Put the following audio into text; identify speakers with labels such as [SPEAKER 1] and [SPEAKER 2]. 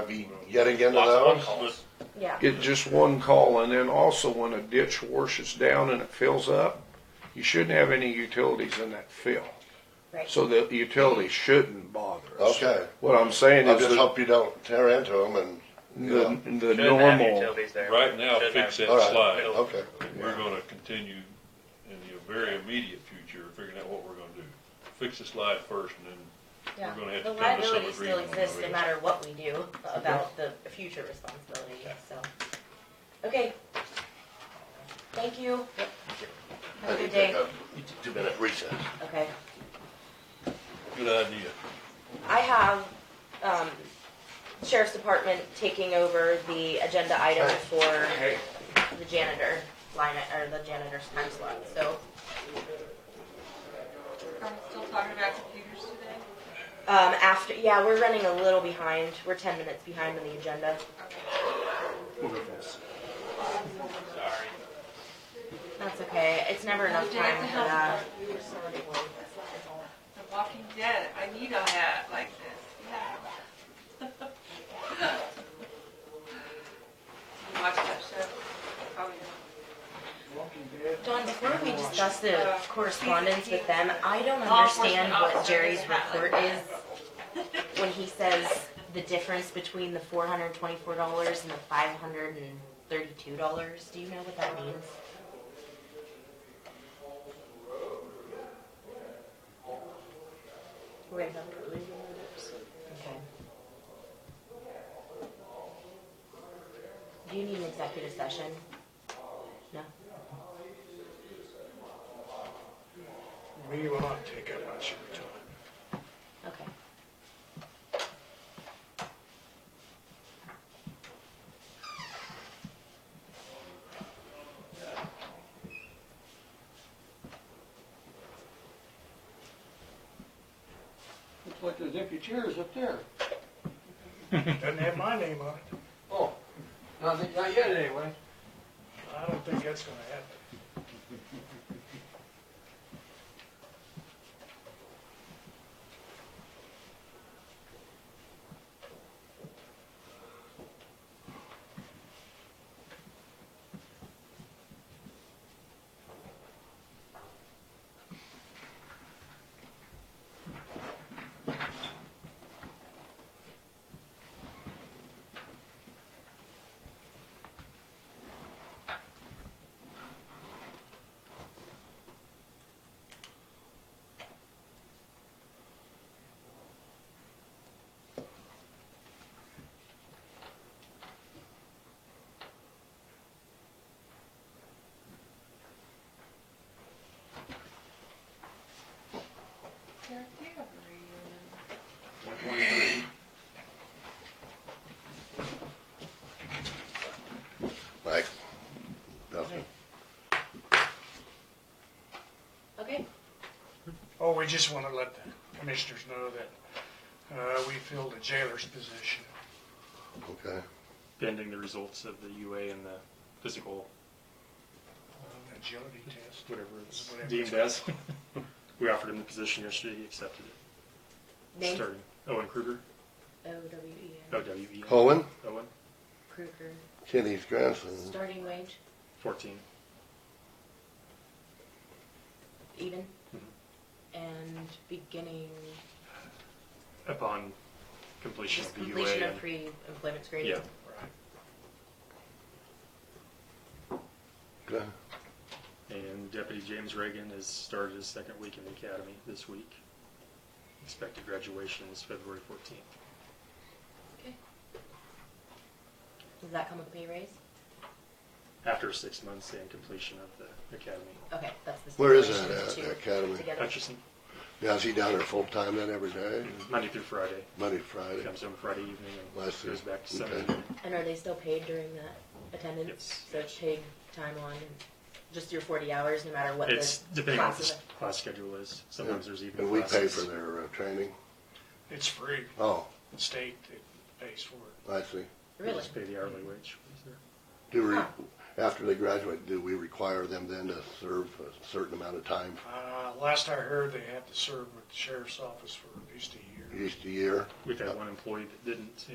[SPEAKER 1] be getting into
[SPEAKER 2] Lots of
[SPEAKER 1] those?
[SPEAKER 2] one-calls.
[SPEAKER 3] yeah.
[SPEAKER 4] Get just one call, and then also when a ditch washes down and it fills up, you shouldn't have any utilities in that fill.
[SPEAKER 3] Right.
[SPEAKER 4] So the utilities shouldn't bother us.
[SPEAKER 1] Okay.
[SPEAKER 4] What I'm saying
[SPEAKER 1] I
[SPEAKER 4] is
[SPEAKER 1] just
[SPEAKER 4] the,
[SPEAKER 1] hope you don't tear into them and,
[SPEAKER 4] the, the
[SPEAKER 5] Shouldn't have
[SPEAKER 4] normal,
[SPEAKER 5] utilities there.
[SPEAKER 2] Right now,
[SPEAKER 5] Shouldn't
[SPEAKER 2] fix
[SPEAKER 5] have.
[SPEAKER 2] that
[SPEAKER 1] all right,
[SPEAKER 2] slide.
[SPEAKER 1] okay.
[SPEAKER 2] We're gonna continue in the very immediate future, figuring out what we're gonna do. Fix the slide first and then,
[SPEAKER 3] Yeah.
[SPEAKER 2] We're gonna have
[SPEAKER 3] The
[SPEAKER 2] to come to some
[SPEAKER 3] liability still
[SPEAKER 2] agreement on
[SPEAKER 3] exists
[SPEAKER 2] the
[SPEAKER 3] no
[SPEAKER 2] rates.
[SPEAKER 3] matter what we do about the future responsibility, so. Okay. Thank you. Have a good day.
[SPEAKER 1] Two minute recess.
[SPEAKER 3] Okay.
[SPEAKER 2] good idea.
[SPEAKER 3] I have, um, sheriff's department taking over the agenda item for the janitor line, or the janitor's time slot, so.
[SPEAKER 6] I'm still talking about computers today.
[SPEAKER 3] Um, after, yeah, we're running a little behind. We're ten minutes behind on the agenda. That's okay. It's never enough
[SPEAKER 6] The day
[SPEAKER 3] time
[SPEAKER 6] of the
[SPEAKER 3] for
[SPEAKER 6] health
[SPEAKER 3] that.
[SPEAKER 6] department. The Walking Dead, I need a hat like this, yeah. You Watch that show? Oh, Probably not.
[SPEAKER 3] Dawn, before we discuss the correspondence with them, I don't understand what Jerry's report is when he says the difference between the four hundred and twenty-four dollars and the five hundred and thirty-two dollars. Do you know what that means? Okay. Do you need an executive session? No?
[SPEAKER 7] We will not take up much of your time.
[SPEAKER 3] Okay.
[SPEAKER 8] Looks like those empty chairs up there.
[SPEAKER 7] Doesn't have my name on it.
[SPEAKER 8] Oh, not, not yet anyway.
[SPEAKER 7] I don't think that's gonna happen.
[SPEAKER 6] Derek, do you have a radio?
[SPEAKER 1] Mike? Nothing?
[SPEAKER 3] Okay.
[SPEAKER 7] Oh, we just wanna let the commissioners know that, uh, we filled the jailer's position.
[SPEAKER 1] Okay.
[SPEAKER 5] Pending the results of the UA and the physical,
[SPEAKER 7] uh, Agility test.
[SPEAKER 5] whatever it's
[SPEAKER 7] Whatever.
[SPEAKER 5] deemed as. We offered him the position yesterday, he accepted it.
[SPEAKER 3] Name?
[SPEAKER 5] Starting Owen Kruger,
[SPEAKER 3] O-W-E-N,
[SPEAKER 5] O-W-E,
[SPEAKER 1] Cohen,
[SPEAKER 5] Owen,
[SPEAKER 3] Kruger,
[SPEAKER 1] Kenny's grandson.
[SPEAKER 3] starting wage,
[SPEAKER 5] fourteen.
[SPEAKER 3] even,
[SPEAKER 5] Mm-hmm.
[SPEAKER 3] and beginning,
[SPEAKER 5] Upon completion
[SPEAKER 3] just
[SPEAKER 5] of the UA.
[SPEAKER 3] completion of
[SPEAKER 5] and-
[SPEAKER 3] pre-employment screening.
[SPEAKER 5] Yeah,
[SPEAKER 1] Okay.
[SPEAKER 5] and Deputy James Reagan has started his second week in the academy this week. Expected graduation is February fourteenth.
[SPEAKER 3] Does that come with pay raise?
[SPEAKER 5] after six months and completion of the academy.
[SPEAKER 3] Okay, that's the.
[SPEAKER 1] Where is
[SPEAKER 3] stipulation,
[SPEAKER 1] that at,
[SPEAKER 3] the two
[SPEAKER 1] the academy?
[SPEAKER 3] together.
[SPEAKER 5] Hutchison,
[SPEAKER 1] Now, is he down there full time then every day?
[SPEAKER 5] Monday through Friday,
[SPEAKER 1] Monday, Friday?
[SPEAKER 5] comes home Friday evening and
[SPEAKER 1] Last year.
[SPEAKER 5] goes back to
[SPEAKER 1] Okay.
[SPEAKER 5] Sunday.
[SPEAKER 3] And are they still paid during that attendance?
[SPEAKER 5] Yes.
[SPEAKER 3] So it's paid time on, and just your forty hours, no matter what the
[SPEAKER 5] It's depending on what the
[SPEAKER 3] classes
[SPEAKER 5] s- class schedule is. Sometimes there's even
[SPEAKER 1] And we pay
[SPEAKER 5] classes.
[SPEAKER 1] for their uh, training?
[SPEAKER 7] It's free,
[SPEAKER 1] Oh,
[SPEAKER 7] The state that pays for it.
[SPEAKER 1] I see.
[SPEAKER 3] are. Really?
[SPEAKER 5] Just pay the hourly wage. Is there-
[SPEAKER 1] Do we, after they graduate, do we require them then to serve a certain amount of time,
[SPEAKER 7] Uh, last I heard, they have to serve with the sheriff's office for at least a year.
[SPEAKER 1] at least a year?
[SPEAKER 5] We've had one employee that didn't,